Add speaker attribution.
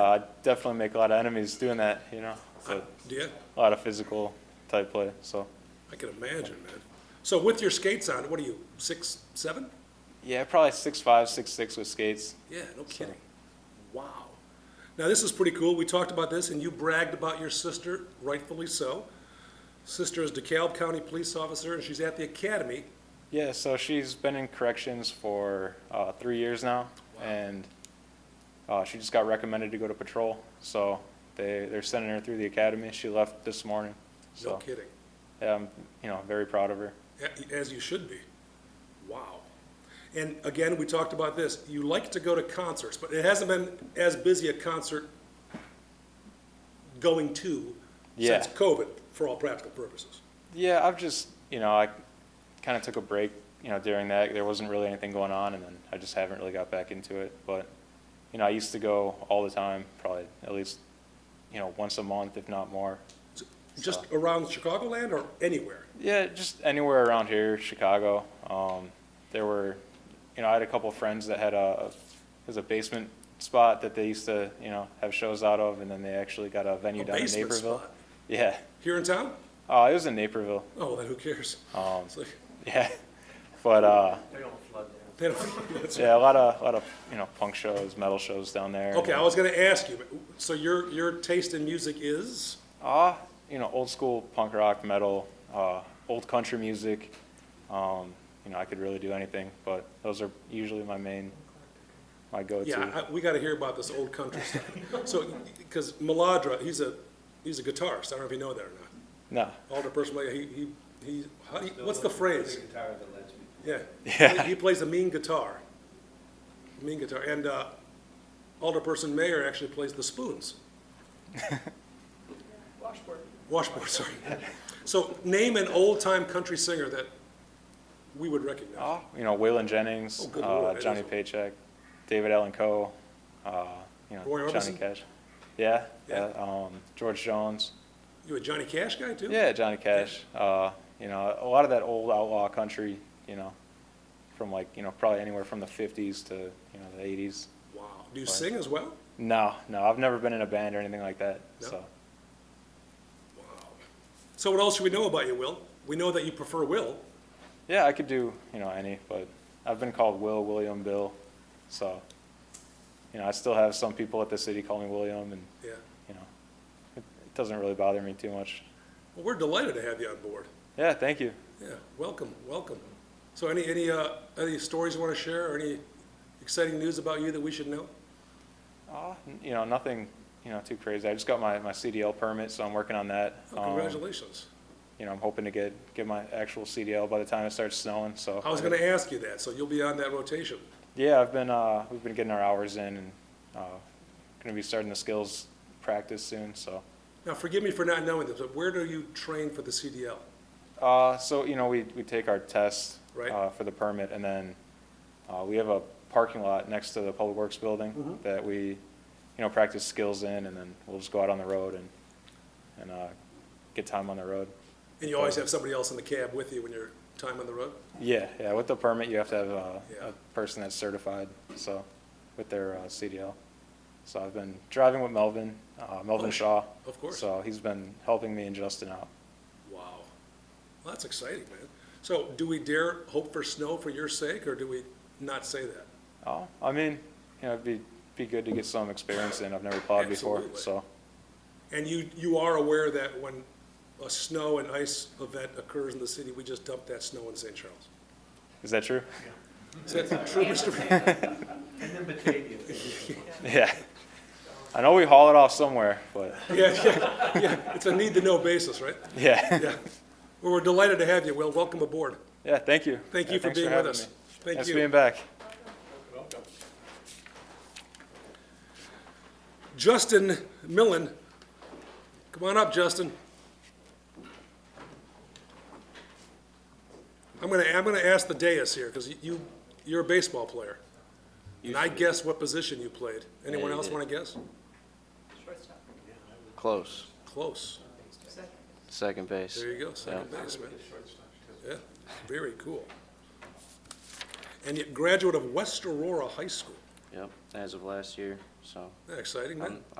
Speaker 1: Uh, definitely make a lot of enemies doing that, you know, so
Speaker 2: Yeah,
Speaker 1: a lot of physical type play, so.
Speaker 2: I can imagine, man. So with your skates on, what are you, six, seven?
Speaker 1: Yeah, probably six five, six six with skates.
Speaker 2: Yeah, no kidding. Wow. Now, this is pretty cool. We talked about this, and you bragged about your sister, rightfully so. Sister is DeKalb County Police Officer, and she's at the academy.
Speaker 1: Yeah, so she's been in corrections for uh, three years now,
Speaker 2: Wow.
Speaker 1: and uh, she just got recommended to go to patrol. So they they're sending her through the academy. She left this morning.
Speaker 2: No
Speaker 1: So
Speaker 2: kidding.
Speaker 1: yeah, I'm you know very proud of her.
Speaker 2: A- As you should be. Wow. And again, we talked about this. You like to go to concerts, but it hasn't been as busy a concert going to
Speaker 1: Yeah.
Speaker 2: since COVID, for all practical purposes.
Speaker 1: Yeah, I've just you know I kind of took a break you know during that there wasn't really anything going on, and then I just haven't really got back into it. But you know I used to go all the time, probably at least you know once a month, if not more.
Speaker 2: Just around Chicagoland or anywhere?
Speaker 1: Yeah, just anywhere around here, Chicago. Um, there were, you know, I had a couple of friends that had a, it was a basement spot that they used to, you know, have shows out of, and then they actually got a venue
Speaker 2: A
Speaker 1: down in
Speaker 2: basement
Speaker 1: Naperville.
Speaker 2: spot.
Speaker 1: Yeah.
Speaker 2: Here in town?
Speaker 1: Oh, it was in Naperville.
Speaker 2: Oh, then who cares?
Speaker 1: Um,
Speaker 2: It's like,
Speaker 1: yeah. But uh,
Speaker 2: they don't- that's-
Speaker 1: yeah, a lot of, a lot of, you know, punk shows, metal shows down there.
Speaker 2: Okay, I was gonna ask you, so your, your taste in music is?
Speaker 1: Ah, you know, old school punk rock, metal, uh, old country music. Um, you know, I could really do anything, but those are usually my main, my go-to.
Speaker 2: Yeah, I, we gotta hear about this old country stuff. So, because Maladra, he's a, he's a guitarist, I don't know if you know that or not.
Speaker 1: No.
Speaker 2: Alder personally, he, he, he, how do you- what's the phrase?
Speaker 3: guitar that lets me.
Speaker 2: Yeah.
Speaker 1: Yeah.
Speaker 2: He- He plays a mean guitar. Mean guitar, and, uh, Alderperson Mayer actually plays the spoons.
Speaker 3: Washboard.
Speaker 2: Washboard, sorry. So name an old-time country singer that we would recognize.
Speaker 1: Oh, you know, Waylon Jennings,
Speaker 2: Oh, good
Speaker 1: uh,
Speaker 2: lord, that
Speaker 1: Johnny
Speaker 2: is-
Speaker 1: Paycheck, David Allen Coe, uh, you know,
Speaker 2: Roy
Speaker 1: Johnny
Speaker 2: Orbison?
Speaker 1: Cash. Yeah,
Speaker 2: Yeah.
Speaker 1: yeah. um, George Jones.
Speaker 2: You a Johnny Cash guy, too?
Speaker 1: Yeah, Johnny Cash. Uh, you know, a lot of that old outlaw country, you know, from like, you know, probably anywhere from the 50s to, you know, the 80s.
Speaker 2: Wow. Do you sing as well?
Speaker 1: No, no, I've never been in a band or anything like that.
Speaker 2: No?
Speaker 1: So,
Speaker 2: Wow. So what else should we know about you, Will? We know that you prefer Will.
Speaker 1: yeah, I could do, you know, any, but I've been called Will, William, Bill. So, you know, I still have some people at the city call me William and
Speaker 2: Yeah.
Speaker 1: you know, it, it doesn't really bother me too much.
Speaker 2: Well, we're delighted to have you on board.
Speaker 1: Yeah, thank you.
Speaker 2: Yeah, welcome, welcome. So any, any, uh, any stories you want to share or any exciting news about you that we should know?
Speaker 1: Uh, n- you know, nothing, you know, too crazy. I just got my, my CDL permit, so I'm working on that.
Speaker 2: Oh,
Speaker 1: Um,
Speaker 2: Congratulations.
Speaker 1: You know, I'm hoping to get, get my actual CDL by the time it starts snowing, so.
Speaker 2: I was going to ask you that, so you'll be on that rotation.
Speaker 1: Yeah, I've been, uh, we've been getting our hours in and, uh, gonna be starting the skills practice soon, so.
Speaker 2: Now, forgive me for not knowing this, but where do you train for the CDL?
Speaker 1: Uh, so, you know, we, we take our test.
Speaker 2: Right.
Speaker 1: Uh, for the permit, and then, uh, we have a parking lot next to the Public Works Building
Speaker 2: Mm-hmm.
Speaker 1: that we, you know, practice skills in, and then we'll just go out on the road and, and, uh, get time on the road.
Speaker 2: And you always have somebody else in the cab with you when you're time on the road?
Speaker 1: Yeah, yeah, with the permit, you have to have a,
Speaker 2: Yeah.
Speaker 1: a person that's certified, so, with their, uh, CDL. So I've been driving with Melvin, uh, Melvin
Speaker 2: Oh,
Speaker 1: Shaw.
Speaker 2: of course.
Speaker 1: So he's been helping me and Justin out.
Speaker 2: Wow. Well, that's exciting, man. So do we dare hope for snow for your sake, or do we not say that?
Speaker 1: Oh, I mean, you know, it'd be, be good to get some experience in. I've never plowed before,
Speaker 2: Absolutely.
Speaker 1: so.
Speaker 2: And you, you are aware that when a snow and ice event occurs in the city, we just dump that snow in St. Charles?
Speaker 1: Is that true?
Speaker 2: Is that true, Mr. Reed?
Speaker 3: And then Batavia.
Speaker 1: Yeah. I know we haul it off somewhere, but
Speaker 2: Yeah, yeah, yeah, it's a need-to-know basis, right?
Speaker 1: yeah.
Speaker 2: Yeah. Well, we're delighted to have you, Will. Welcome aboard.
Speaker 1: Yeah, thank you.
Speaker 2: Thank
Speaker 1: Yeah,
Speaker 2: you for
Speaker 1: thanks
Speaker 2: being with
Speaker 1: having
Speaker 2: us.
Speaker 1: me.
Speaker 2: Thank
Speaker 1: Nice
Speaker 2: you.
Speaker 1: being back.
Speaker 2: Justin Millen. Come on up, Justin. I'm gonna, I'm gonna ask the dais here, because you, you're a baseball player. And I guess what position you played. Anyone
Speaker 4: Yeah, you
Speaker 2: else
Speaker 4: did.
Speaker 2: wanna guess?
Speaker 4: Close.
Speaker 2: Close.
Speaker 4: Second base.
Speaker 2: There you go, second baseman. Yeah, very cool. And yet graduate of West Aurora High School. Yep, as of last year, so
Speaker 3: Exciting, man.
Speaker 2: I'm,